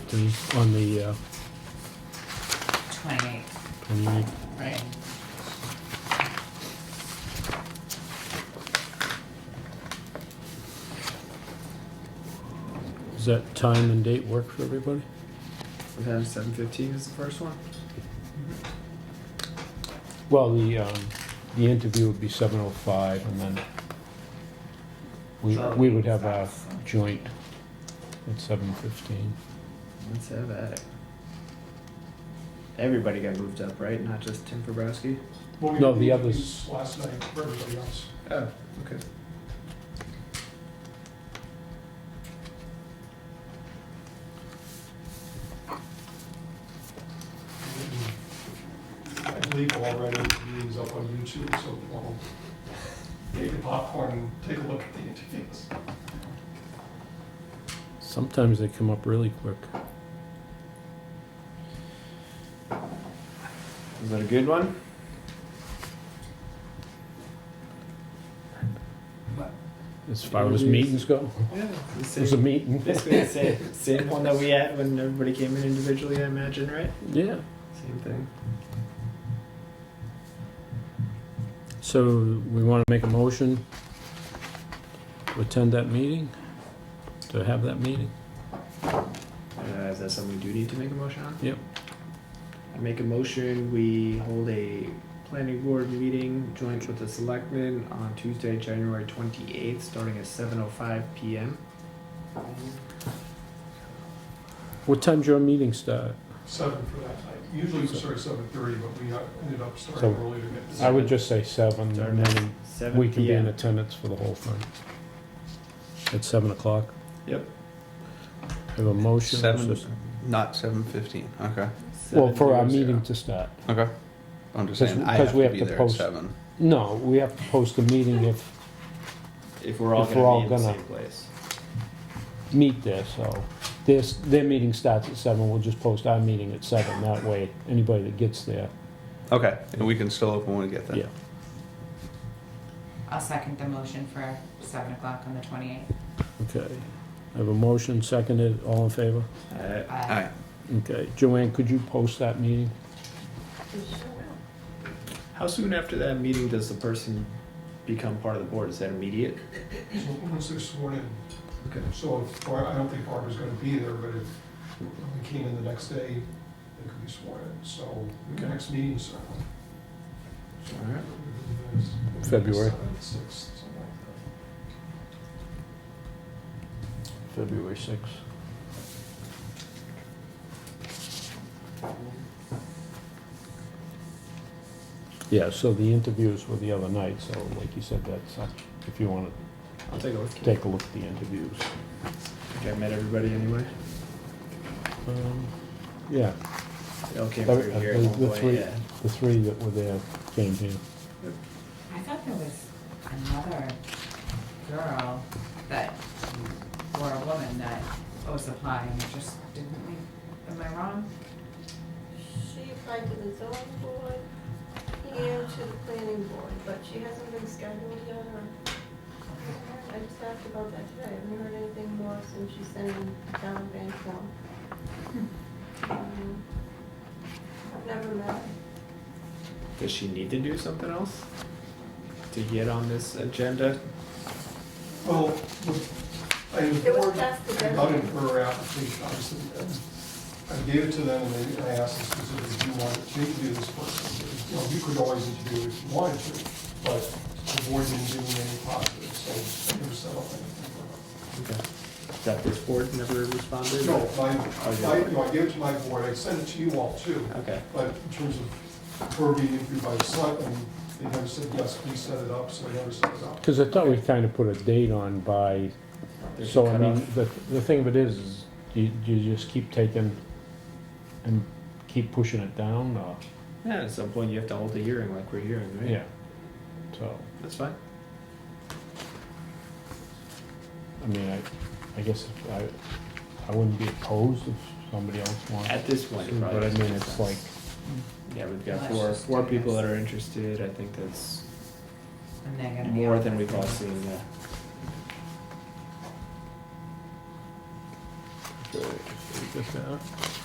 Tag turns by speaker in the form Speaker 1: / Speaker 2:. Speaker 1: Thursday, on the uh,
Speaker 2: Twenty-eight,
Speaker 1: 28th.
Speaker 2: right?
Speaker 1: Does that time and date work for everybody?
Speaker 3: We have seven fifteen is the first one.
Speaker 1: Well, the, um, the interview would be 7:05, and then we, we would have our joint at 7:15.
Speaker 3: Let's have at it. Everybody got moved up, right? Not just Tim Fabrowski?
Speaker 4: Well, we
Speaker 1: No,
Speaker 4: had
Speaker 1: the
Speaker 4: meetings
Speaker 1: others-
Speaker 4: Last night for everybody else.
Speaker 3: Oh, okay.
Speaker 4: I believe already the meeting's up on YouTube, so we'll make a popcorn and take a look at the interviews.
Speaker 1: Sometimes they come up really quick.
Speaker 3: Is that a good one?
Speaker 1: As far as meetings go,
Speaker 3: Yeah.
Speaker 1: it
Speaker 3: The
Speaker 1: was a
Speaker 3: same,
Speaker 1: meeting.
Speaker 3: basically the same, same one that we had when everybody came in individually, I imagine, right?
Speaker 1: Yeah.
Speaker 3: Same thing.
Speaker 1: So we want to make a motion to attend that meeting, to have that meeting?
Speaker 3: Uh, is that something we do need to make a motion on?
Speaker 1: Yep.
Speaker 3: I make a motion, we hold a planning board meeting joint with the selectmen on Tuesday, January twenty-eighth, starting at seven oh five PM.
Speaker 1: What time's your meeting start?
Speaker 4: Seven for that night. Usually we start at seven thirty, but we uh, ended up starting
Speaker 1: So,
Speaker 4: early to get. to-
Speaker 1: I would just say seven, and then
Speaker 3: Seven
Speaker 1: we can be in
Speaker 3: PM.
Speaker 1: attendance for the whole thing. At seven o'clock?
Speaker 3: Yep.
Speaker 1: Have a motion?
Speaker 5: Seven, not seven fifteen, okay,
Speaker 1: Well, for our
Speaker 3: 7:00.
Speaker 1: meeting to start.
Speaker 5: okay. I'm just
Speaker 1: 'Cause-
Speaker 5: saying, I
Speaker 1: 'cause
Speaker 5: have
Speaker 1: we
Speaker 5: to
Speaker 1: have
Speaker 5: be
Speaker 1: to
Speaker 5: there at
Speaker 1: post-
Speaker 5: seven.
Speaker 1: No, we have to post a meeting if,
Speaker 3: If we're all
Speaker 1: If we're
Speaker 3: gonna
Speaker 1: all
Speaker 3: be in the
Speaker 1: gonna-
Speaker 3: same place.
Speaker 1: meet there, so. Their, their meeting starts at seven, we'll just post our meeting at seven. That way, anybody that gets there.
Speaker 5: Okay, and we can still open when we get
Speaker 1: Yeah.
Speaker 5: there.
Speaker 2: I'll second the motion for seven o'clock on the twenty-eighth.
Speaker 1: Okay. I have a motion, seconded, all in favor?
Speaker 3: Uh,
Speaker 5: Alright,
Speaker 1: Okay. Joanne, could you post that meeting?
Speaker 3: How soon after that meeting does the person become part of the board? Is that immediate?
Speaker 4: So Once they're sworn in,
Speaker 3: Okay.
Speaker 4: so if, Bar- I don't think Barbara's gonna be there, but if they came in the next day, they could be sworn in, so the next meeting certainly.
Speaker 3: Alright.
Speaker 1: February.
Speaker 4: Sixth, something like that.
Speaker 1: February sixth. Yeah, so the interviews were the other night, so like you said, that's, uh, if you want
Speaker 3: I'll take a look.
Speaker 1: to take a look at the interviews.
Speaker 3: Okay, I met everybody anyway.
Speaker 1: Um, Yeah,
Speaker 3: They all came
Speaker 1: Uh,
Speaker 3: through
Speaker 1: uh,
Speaker 3: here
Speaker 1: the-
Speaker 3: at
Speaker 1: the
Speaker 3: one point,
Speaker 1: three.
Speaker 3: yeah.
Speaker 1: the three that were there came here.
Speaker 2: I thought there was another girl that, or a woman that was applying, it just didn't we, am I wrong?
Speaker 6: She applied to the zoning board and to the planning board, but she hasn't been scheduled yet or. I just asked about that today. I haven't heard anything more since she sent in down bank form. Um, I've never met her.
Speaker 3: Does she need to do something else to get on this agenda?
Speaker 4: Well, the- I
Speaker 6: It was
Speaker 4: informed
Speaker 6: passed together.
Speaker 4: about it for her application, obviously. and I gave it to them, and they- I asked them specifically, do you want to interview this person? You know, you could always interview if you wanted to, but the board didn't give me any positive, so I never set up anything for her.
Speaker 3: Okay. That this board never responded?
Speaker 4: No, my,
Speaker 3: Oh, yeah.
Speaker 4: my, you know, I gave it to my board, I sent it to you all too,
Speaker 3: Okay,
Speaker 4: but in terms of her being interviewed by the selectmen, they never said, yes, please set it up, so I never set it up.
Speaker 1: Because I thought we kind of put a date on by,
Speaker 3: there's a
Speaker 1: so I mean,
Speaker 3: cutoff.
Speaker 1: the, the thing of it is, is you, you just keep taking and keep pushing it down, or,
Speaker 3: Yeah, at some point you have to hold a hearing like we're hearing, right?
Speaker 1: yeah. So,
Speaker 3: That's fine.
Speaker 1: I mean, I, I guess I, I wouldn't be opposed if somebody else wanted.
Speaker 3: At this point, it
Speaker 1: to,
Speaker 3: probably
Speaker 1: But I
Speaker 3: doesn't
Speaker 1: mean,
Speaker 3: make
Speaker 1: it's
Speaker 3: sense.
Speaker 1: like,
Speaker 3: Yeah, we've got
Speaker 2: Let's
Speaker 3: four,
Speaker 2: just
Speaker 3: four
Speaker 2: do
Speaker 3: people
Speaker 2: this.
Speaker 3: that are interested, I think that's
Speaker 2: And they're gonna be.
Speaker 3: more
Speaker 2: on
Speaker 3: than we've all
Speaker 2: that.
Speaker 3: seen, yeah.
Speaker 5: Okay,
Speaker 1: just now.